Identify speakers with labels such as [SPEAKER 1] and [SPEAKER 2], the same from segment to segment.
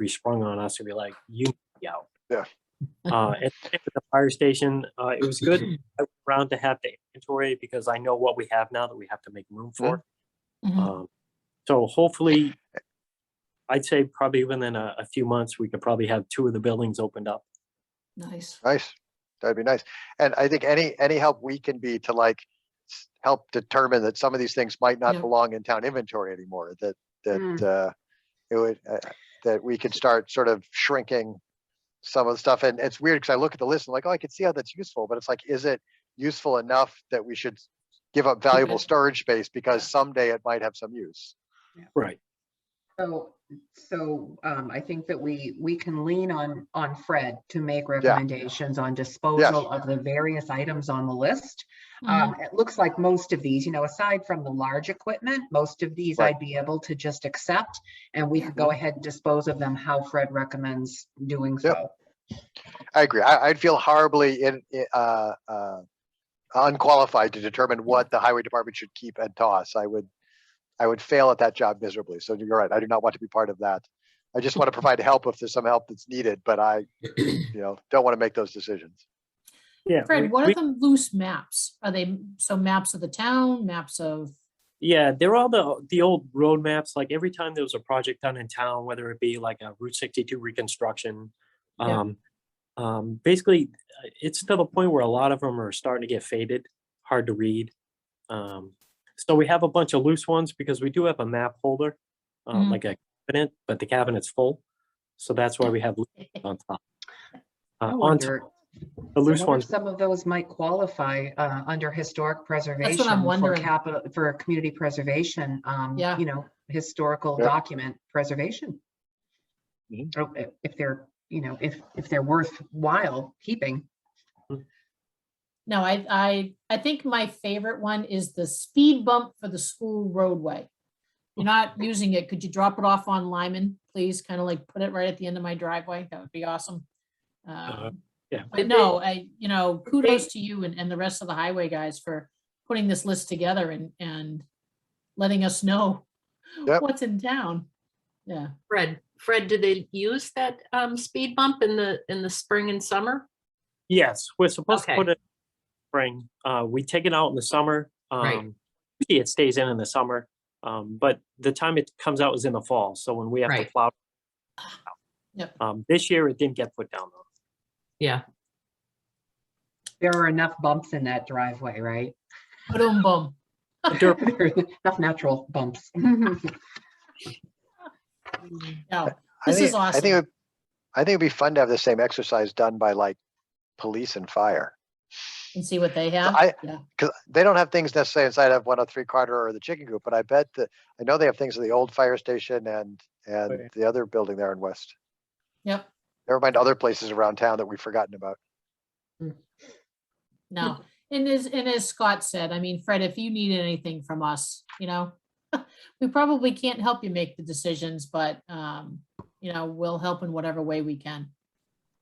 [SPEAKER 1] be sprung on us and be like, you be out.
[SPEAKER 2] Yeah.
[SPEAKER 1] Uh, and at the fire station, uh, it was good I went around to have the inventory because I know what we have now that we have to make room for.
[SPEAKER 3] Mhm.
[SPEAKER 1] Um, so hopefully, I'd say probably within a, a few months, we could probably have two of the buildings opened up. uh,
[SPEAKER 3] Nice.
[SPEAKER 2] Nice. That'd be nice. And I think any, any help we can be to like s- help determine that some of these things might not
[SPEAKER 3] Yeah.
[SPEAKER 2] belong in town inventory anymore, that,
[SPEAKER 4] Mm.
[SPEAKER 2] that, uh, it would, uh, that we could start sort of shrinking some of the stuff. And it's weird because I look at the list and like, oh, I can see how that's useful, but it's like, is it useful enough that we should give up valuable
[SPEAKER 3] it.
[SPEAKER 2] storage space because someday it might have some use?
[SPEAKER 1] Right.
[SPEAKER 4] So, so um, I think that we, we can lean on, on Fred to make recommendations on disposal of the various items on the list. Um,
[SPEAKER 3] Mhm.
[SPEAKER 4] It looks like most of these, you know, aside from the large equipment, most of these
[SPEAKER 2] Right. Mm-hmm.
[SPEAKER 4] I'd be able to just accept. And we
[SPEAKER 3] Yeah.
[SPEAKER 4] could go ahead and dispose of them how Fred recommends doing
[SPEAKER 2] Yep.
[SPEAKER 4] so.
[SPEAKER 2] I agree. I, I'd feel horribly in, i- uh, uh, unqualified to determine what the highway department should keep and toss. I would, I would fail at that job miserably. So you're right. I do not want to be part of that. I just want to provide help if there's some help that's needed, but I, you know, don't want to make those decisions.
[SPEAKER 1] Yeah. we-
[SPEAKER 3] Fred, what
[SPEAKER 1] we-
[SPEAKER 3] are the loose maps? Are they, m- so maps of the town, maps of,
[SPEAKER 1] Yeah, they're all the the old road maps. Like every time there was a project done in town, whether it be like a Route 62 reconstruction,
[SPEAKER 3] Yeah.
[SPEAKER 1] um, um, basically, uh, it's to the point where a lot of them are starting to get faded, hard to read. Um, so we have a bunch of loose ones because we do have a map holder, uh,
[SPEAKER 4] Mm-hmm.
[SPEAKER 3] Mhm.
[SPEAKER 1] like a cabinet, but the cabinet's full, so that's why we have loose on top. Uh,
[SPEAKER 4] I
[SPEAKER 1] on top,
[SPEAKER 4] wonder,
[SPEAKER 1] the
[SPEAKER 4] I
[SPEAKER 1] loose
[SPEAKER 4] wonder if
[SPEAKER 1] ones,
[SPEAKER 4] some of those might qualify uh, under historic preservation. For
[SPEAKER 3] wondering.
[SPEAKER 4] capital, for community preservation, um,
[SPEAKER 3] Yeah.
[SPEAKER 4] you know, historical
[SPEAKER 2] Yeah.
[SPEAKER 4] document preservation.
[SPEAKER 2] Mhm.
[SPEAKER 4] Or i- If they're, you know, if, if they're worthwhile keeping.
[SPEAKER 3] no, I, I, I think my favorite one is the speed bump for the school roadway. You're not using it. Could you drop it off on Lyman, please? Kind of like put it right at the end of my driveway. That would be awesome. Um,
[SPEAKER 1] Uh, yeah.
[SPEAKER 3] But
[SPEAKER 5] Did
[SPEAKER 3] no, I, you know, kudos to you and, and the rest of the highway guys for putting this list together and, and letting us know
[SPEAKER 2] Yep.
[SPEAKER 3] what's in town. Yeah.
[SPEAKER 5] Fred, Fred, do they use that um speed bump in the, in the spring and summer?
[SPEAKER 1] Yes, we're supposed to
[SPEAKER 5] Okay.
[SPEAKER 1] put it spring. Uh, we take it out in the summer.
[SPEAKER 5] Right.
[SPEAKER 1] Um, usually it stays in in the summer. Um, but the time it comes out is in the fall. So when we have to
[SPEAKER 5] Right.
[SPEAKER 1] plow.
[SPEAKER 3] Yep.
[SPEAKER 1] Um, this year it didn't get put down though.
[SPEAKER 5] Yeah.
[SPEAKER 4] There are enough bumps in that driveway, right?
[SPEAKER 3] Boom, boom.
[SPEAKER 1] Dur-
[SPEAKER 4] There are Enough natural bumps.
[SPEAKER 3] No,
[SPEAKER 2] I
[SPEAKER 3] This
[SPEAKER 2] think-
[SPEAKER 3] is
[SPEAKER 2] I think, it would- I think it'd be fun to have the same exercise done by like police and fire.
[SPEAKER 3] and see what they have.
[SPEAKER 2] I-
[SPEAKER 3] Yeah.
[SPEAKER 2] because they don't have things necessarily inside of 103 Carter or the chicken coop, but I bet that, I know they have things at the old fire station and, and
[SPEAKER 1] Right.
[SPEAKER 2] the other building there in West.
[SPEAKER 3] Yep.
[SPEAKER 2] Never mind other places around town that we've forgotten about.
[SPEAKER 3] No, and as, and as Scott said, I mean, Fred, if you need anything from us, you know, we probably can't help you make the decisions, but, um, you know, we'll help in whatever way we can.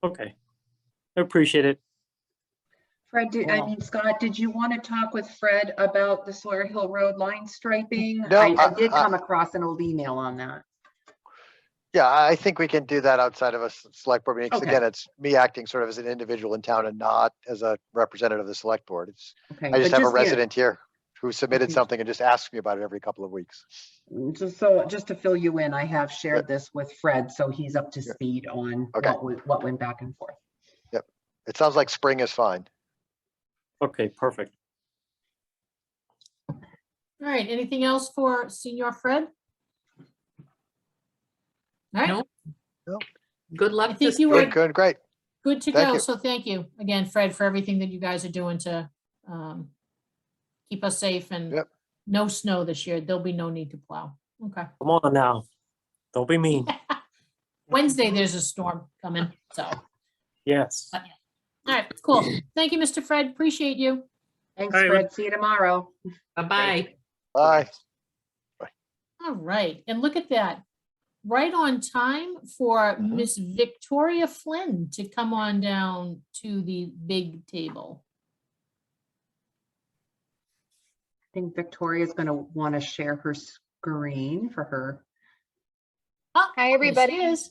[SPEAKER 1] Okay. I appreciate it.
[SPEAKER 4] Fred, did- I
[SPEAKER 3] Wow.
[SPEAKER 4] mean, Scott, did you want to talk with Fred about the Sawyer Hill Road line striping?
[SPEAKER 2] No,
[SPEAKER 4] I- I
[SPEAKER 2] I-
[SPEAKER 4] did
[SPEAKER 2] I-
[SPEAKER 4] come across an old email on that.
[SPEAKER 2] Yeah, I I think we can do that outside of a s- select board meeting. 'cause
[SPEAKER 4] Okay.
[SPEAKER 2] Again, it's me acting sort of as an individual in town and not as a representative of the select board. It's,
[SPEAKER 4] Okay,
[SPEAKER 2] I
[SPEAKER 4] but
[SPEAKER 2] just have a
[SPEAKER 4] yeah,
[SPEAKER 2] resident here who submitted
[SPEAKER 4] Mhm.
[SPEAKER 2] something and just asks me about it every couple of weeks.
[SPEAKER 4] Just so, just to fill you in, I have shared this with Fred, so he's up to
[SPEAKER 2] Yeah.
[SPEAKER 4] speed on
[SPEAKER 2] Okay.
[SPEAKER 4] what, we- what went back and forth.
[SPEAKER 2] It sounds like spring is fine.
[SPEAKER 1] Okay, perfect.
[SPEAKER 3] All right, anything else for Senior Fred? All right,
[SPEAKER 5] No. Good
[SPEAKER 3] I
[SPEAKER 5] luck.
[SPEAKER 3] think
[SPEAKER 5] this
[SPEAKER 3] you
[SPEAKER 5] spring.
[SPEAKER 2] Good,
[SPEAKER 3] were
[SPEAKER 2] good, great.
[SPEAKER 3] good to
[SPEAKER 2] Thank
[SPEAKER 3] go.
[SPEAKER 2] you.
[SPEAKER 3] So thank you again, Fred, for everything that you guys are doing to, um, keep us safe and
[SPEAKER 2] Yep.
[SPEAKER 3] no snow this year. There'll be no need to plow. Okay.
[SPEAKER 1] Come on now. Don't be mean.
[SPEAKER 3] Wednesday, there's a storm coming, so, all
[SPEAKER 1] Yes.
[SPEAKER 3] right, cool. Thank you, Mr. Fred, appreciate you.
[SPEAKER 4] Thanks,
[SPEAKER 1] All right,
[SPEAKER 4] Fred. See you tomorrow.
[SPEAKER 5] Bye-bye.
[SPEAKER 2] Bye.
[SPEAKER 3] All right, and look at that. Right on time for
[SPEAKER 2] Mhm.
[SPEAKER 3] Miss Victoria Flynn to come on down to the big table.
[SPEAKER 4] I think Victoria's going to want to share her screen for her.
[SPEAKER 3] Oh,
[SPEAKER 6] Hi,
[SPEAKER 3] there she
[SPEAKER 6] everybody.
[SPEAKER 3] is.